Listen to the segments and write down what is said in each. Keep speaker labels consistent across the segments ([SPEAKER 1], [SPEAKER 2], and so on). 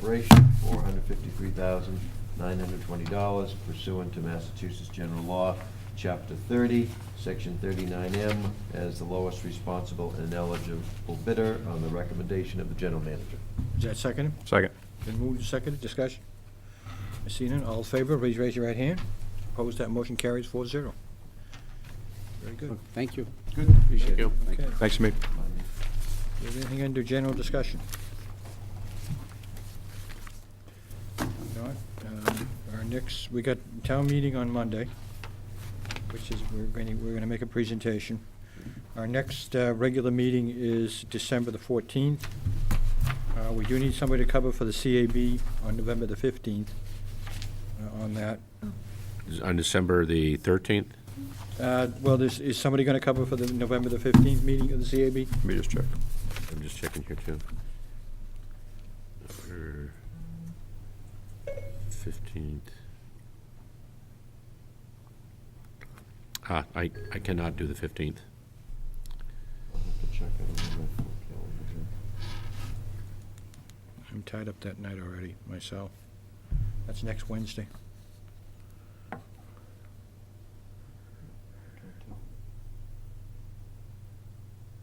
[SPEAKER 1] Corporation, four hundred fifty-three thousand, nine hundred twenty dollars pursuant to Massachusetts General Law, Chapter thirty, Section thirty-nine M, as the lowest responsible and eligible bidder on the recommendation of the general manager.
[SPEAKER 2] Is that seconded?
[SPEAKER 3] Second.
[SPEAKER 2] Been moved and seconded, discussion? Miss Seaton, all in favor, please raise your right hand. Opposed, that motion carries four zero. Very good.
[SPEAKER 4] Thank you.
[SPEAKER 1] Good.
[SPEAKER 4] Appreciate it. Thank
[SPEAKER 2] Okay.
[SPEAKER 4] you.
[SPEAKER 3] Thanks, Amit.
[SPEAKER 2] Is there anything under general discussion? Not, um, Our next, we got town meeting on Monday, which is, we're going to, we're going to make a presentation. Our next uh, regular meeting is December the 14th. Uh, We do need somebody to cover for the CAB on November the 15th uh, on that.
[SPEAKER 5] On December the 13th?
[SPEAKER 2] Uh, Well, there's- is somebody going to cover for the November the 15th meeting of the CAB?
[SPEAKER 3] Let me just check.
[SPEAKER 5] I'm just checking here, too. November 15th. Ah, I, I cannot do the 15th.
[SPEAKER 1] I'll have to check it on my calendar here.
[SPEAKER 2] I'm tied up that night already, myself. That's next Wednesday.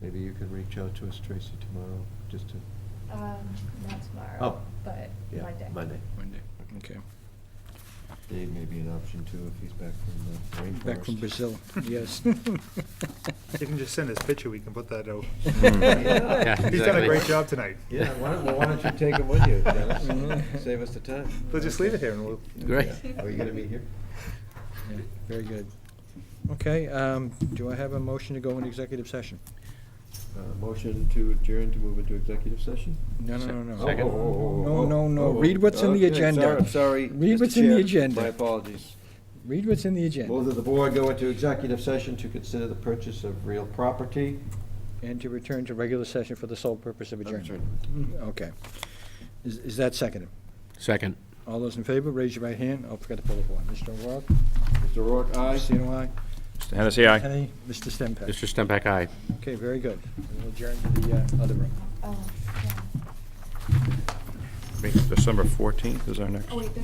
[SPEAKER 1] Maybe you can reach out to us, Tracy, tomorrow, just to,
[SPEAKER 6] Um, not tomorrow.
[SPEAKER 1] Oh.
[SPEAKER 6] But
[SPEAKER 1] yeah,
[SPEAKER 6] Monday.
[SPEAKER 1] Monday.
[SPEAKER 2] Monday. Okay.
[SPEAKER 1] Dave may be an option too, if he's back from the rainforest.
[SPEAKER 2] Back from Brazil, yes.
[SPEAKER 7] You can just send us picture, we can put that out.
[SPEAKER 2] Mm.
[SPEAKER 5] Yeah,
[SPEAKER 7] He's done a
[SPEAKER 5] exactly.
[SPEAKER 7] great job tonight.
[SPEAKER 1] Yeah, why don't, well, why don't you take him with you, Dennis?
[SPEAKER 2] Mhm.
[SPEAKER 1] Save us the time.
[SPEAKER 7] We'll just leave it here and we'll.
[SPEAKER 5] Great.
[SPEAKER 1] Are you gonna be here?
[SPEAKER 2] Yeah, Very good. Okay, um, do I have a motion to go in executive session?
[SPEAKER 1] Uh, Motion to adjourn to move into executive session?
[SPEAKER 2] No, no, no,
[SPEAKER 1] Oh,
[SPEAKER 2] no.
[SPEAKER 5] Second.
[SPEAKER 1] oh, oh,
[SPEAKER 2] No,
[SPEAKER 1] oh,
[SPEAKER 2] no, no.
[SPEAKER 1] oh, oh.
[SPEAKER 2] Read what's in the
[SPEAKER 1] Okay,
[SPEAKER 2] agenda.
[SPEAKER 1] sorry, I'm sorry.
[SPEAKER 2] Read
[SPEAKER 1] Mr.
[SPEAKER 2] what's in the
[SPEAKER 1] Chair,
[SPEAKER 2] agenda.
[SPEAKER 1] My apologies.
[SPEAKER 2] Read what's in the
[SPEAKER 1] Move
[SPEAKER 2] agenda
[SPEAKER 1] that the board go into executive session to consider the purchase of real property.
[SPEAKER 2] and to return to regular session for the sole purpose of adjournment. Okay. Is, is that seconded?
[SPEAKER 5] Second.
[SPEAKER 2] All those in favor, raise your right hand. Oh, forgot to pull the board. Mr. O'Rourke?
[SPEAKER 1] Mr. Rourke, aye.
[SPEAKER 2] Mr. Eno, aye.
[SPEAKER 3] Mr. Hennessy, aye.
[SPEAKER 2] Kennedy? Mr. Stempak?
[SPEAKER 5] Mr. Stempak, aye.
[SPEAKER 2] Okay, very good. We'll adjourn to the uh, other room.
[SPEAKER 6] Oh, yeah.
[SPEAKER 3] December 14th is our next.
[SPEAKER 6] Oh, wait,